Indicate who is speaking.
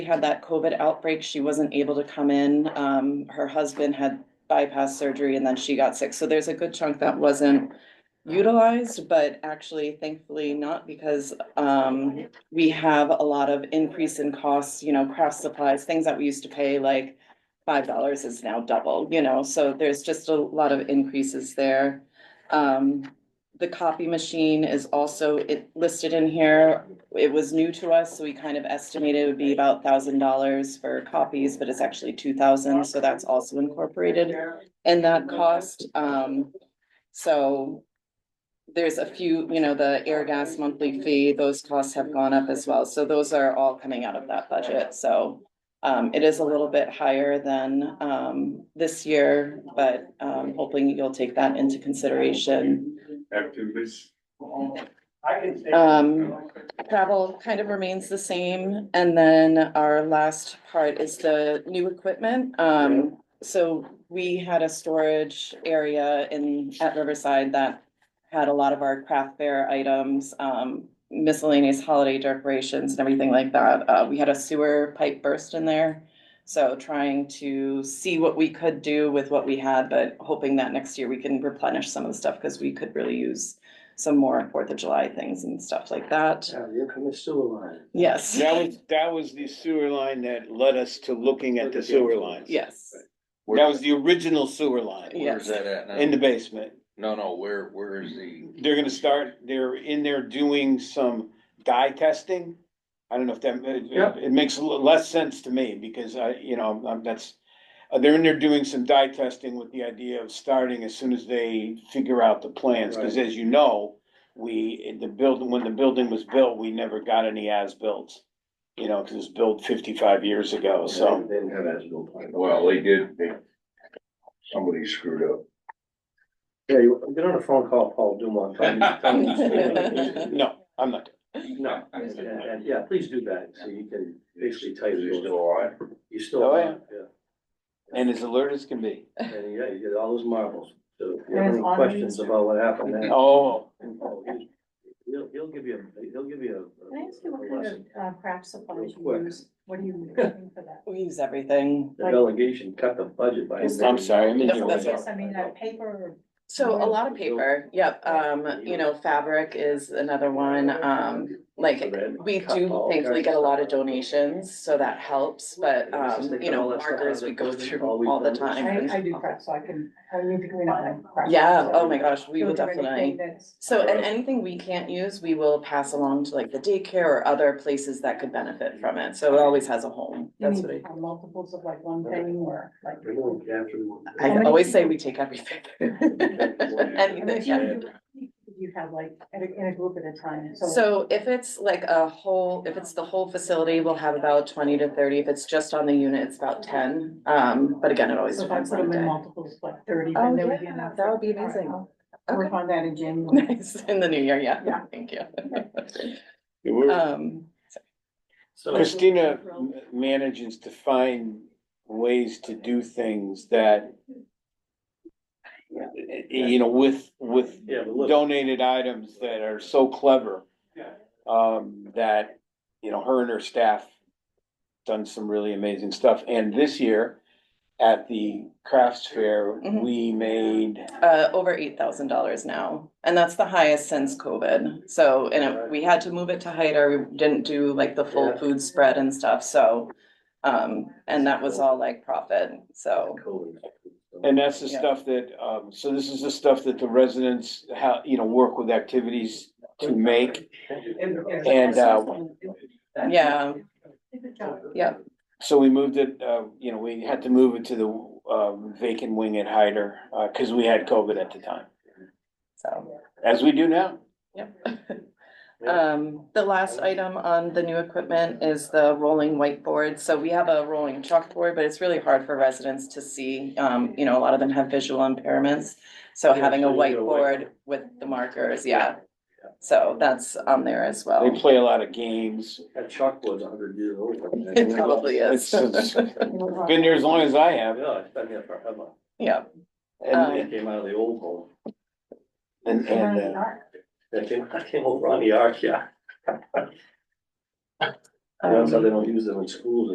Speaker 1: we had that COVID outbreak, she wasn't able to come in. Um, her husband had bypass surgery and then she got sick. So there's a good chunk that wasn't utilized, but actually thankfully not because, um, we have a lot of increase in costs, you know, craft supplies, things that we used to pay like five dollars is now double, you know, so there's just a lot of increases there. Um, the copy machine is also it listed in here it was new to us, so we kind of estimated it would be about thousand dollars for copies, but it's actually two thousand, so that's also incorporated in that cost, um, so. There's a few, you know, the air gas monthly fee, those costs have gone up as well, so those are all coming out of that budget, so. Um, it is a little bit higher than, um, this year, but, um, hoping you'll take that into consideration.
Speaker 2: Activities.
Speaker 1: Um, Travel kind of remains the same, and then our last part is the new equipment. Um, so we had a storage area in, at Riverside that had a lot of our craft fair items, um, miscellaneous holiday decorations and everything like that. Uh, we had a sewer pipe burst in there. So trying to see what we could do with what we had, but hoping that next year we can replenish some of the stuff, because we could really use some more Fourth of July things and stuff like that.
Speaker 3: Here comes sewer line.
Speaker 1: Yes.
Speaker 4: That was, that was the sewer line that led us to looking at the sewer lines.
Speaker 1: Yes,
Speaker 4: That was the original sewer line
Speaker 5: Where's
Speaker 1: yes.
Speaker 5: that at now?
Speaker 4: in the basement.
Speaker 5: No, no, where, where is the?
Speaker 4: They're gonna start, they're in there doing some dye testing. I don't know if that, uh,
Speaker 2: Yeah.
Speaker 4: it, it makes a little less sense to me because I, you know, I'm, that's. uh, They're in there doing some dye testing with the idea of starting as soon as they figure out the plans, cause as you know. We, the building, when the building was built, we never got any as builts. You know, cause it was built fifty-five years ago, so.
Speaker 3: They didn't have as-built plans.
Speaker 2: Well, they did, they, somebody screwed up.
Speaker 3: Yeah, you get on a phone call, Paul Dumont. tell him- tell him to stay.
Speaker 4: No, I'm not.
Speaker 3: No, and, and, yeah, please do that, so you can basically tell
Speaker 2: Is he
Speaker 3: you,
Speaker 2: still alive?
Speaker 3: you still,
Speaker 4: Oh,
Speaker 3: yeah,
Speaker 4: yeah. And as alert as can be.
Speaker 3: and yeah, you get all those marbles. So if you
Speaker 6: And
Speaker 3: have
Speaker 6: it's
Speaker 3: any
Speaker 6: on
Speaker 3: questions about what happened, then,
Speaker 4: Oh,
Speaker 3: oh, he's- he'll, he'll give you, a- he'll give you a.
Speaker 6: Can I ask you what kind of uh, craft supplies
Speaker 3: Real
Speaker 6: you
Speaker 3: quick.
Speaker 6: use? What are you using for that?
Speaker 1: We use everything.
Speaker 3: The delegation cut the budget by.
Speaker 4: I'm sorry, I'm in your
Speaker 1: That's-
Speaker 4: way.
Speaker 6: Yes, I mean, uh, paper or
Speaker 1: So a lot of paper, yep, um, you know, fabric is another one, um, like, we do thankfully get a lot of donations, so that helps, but, um, you know, markers we go through all the time.
Speaker 6: I, I do craft, so I can, I need to clean up my craft.
Speaker 1: Yeah,
Speaker 6: so
Speaker 1: oh my gosh, we will
Speaker 6: filter
Speaker 1: definitely.
Speaker 6: anything that's-
Speaker 1: So, and anything we can't use, we will pass along to like the daycare or other places that could benefit from it, so it always has a home,
Speaker 6: You
Speaker 1: that's
Speaker 6: need
Speaker 1: what I.
Speaker 6: uh, multiples of like one thing or like.
Speaker 3: Remove after.
Speaker 1: I always say we take everything.
Speaker 6: I mean,
Speaker 1: Anything, yeah.
Speaker 6: you- you- You have like, in a, in a group at a time, so.
Speaker 1: So if it's like a whole, if it's the whole facility, we'll have about twenty to thirty. If it's just on the unit, it's about ten. Um, but again, it always
Speaker 6: So if I
Speaker 1: depends
Speaker 6: put
Speaker 1: on
Speaker 6: them
Speaker 1: the
Speaker 6: in
Speaker 1: day.
Speaker 6: multiples, like thirty,
Speaker 1: Oh,
Speaker 6: then there would be
Speaker 1: yeah,
Speaker 6: enough.
Speaker 1: that would be
Speaker 6: All right,
Speaker 1: amazing.
Speaker 6: I'll Work
Speaker 1: Okay.
Speaker 6: on that in January.
Speaker 1: Nice, in the new year, yeah,
Speaker 6: Yeah.
Speaker 1: thank you.
Speaker 4: We're-
Speaker 1: Um,
Speaker 3: So.
Speaker 4: Christina m- manages to find ways to do things that. You know, with, with
Speaker 3: Yeah, but look.
Speaker 4: donated items that are so clever. Um, that, you know, her and her staff done some really amazing stuff. And this year at the crafts fair,
Speaker 3: Mm-hmm.
Speaker 1: Mhm.
Speaker 4: we made
Speaker 1: uh, over eight thousand dollars now, and that's the highest since COVID. So, and it- we had to move it to height or we didn't do like the full
Speaker 3: Yeah.
Speaker 1: food spread and stuff, so. Um, and that was all like profit, so,
Speaker 4: And that's the
Speaker 1: Yeah.
Speaker 4: stuff that, um, so this is the stuff that the residents, how, you know, work with activities to make. And, uh,
Speaker 1: yeah,
Speaker 6: Good job.
Speaker 1: yeah.
Speaker 4: So we moved it, uh, you know, we had to move it to the, um, vacant wing at Hyder, uh, cause we had COVID at the time,
Speaker 1: so.
Speaker 4: as we do now.
Speaker 1: Um, the last item on the new equipment is the rolling whiteboard. So we have a rolling chalkboard, but it's really hard for residents to see. Um, you know, a lot of them have visual impairments. So
Speaker 3: Yeah,
Speaker 1: having a
Speaker 3: so you need a
Speaker 1: whiteboard with the markers, yeah. So that's on there as
Speaker 4: They
Speaker 1: well.
Speaker 4: play a lot of games.
Speaker 3: That chalkboard's a hundred years old.
Speaker 1: It probably is.
Speaker 4: It's- it's Been there as long as I have,
Speaker 3: Yeah, oh, it's been there forever.
Speaker 1: Yeah, Uh,
Speaker 3: It
Speaker 4: and,
Speaker 3: came out of the old home.
Speaker 4: and, and, uh,
Speaker 3: That came, that came over on the arc, yeah. That's how
Speaker 1: um,
Speaker 3: they don't use them in schools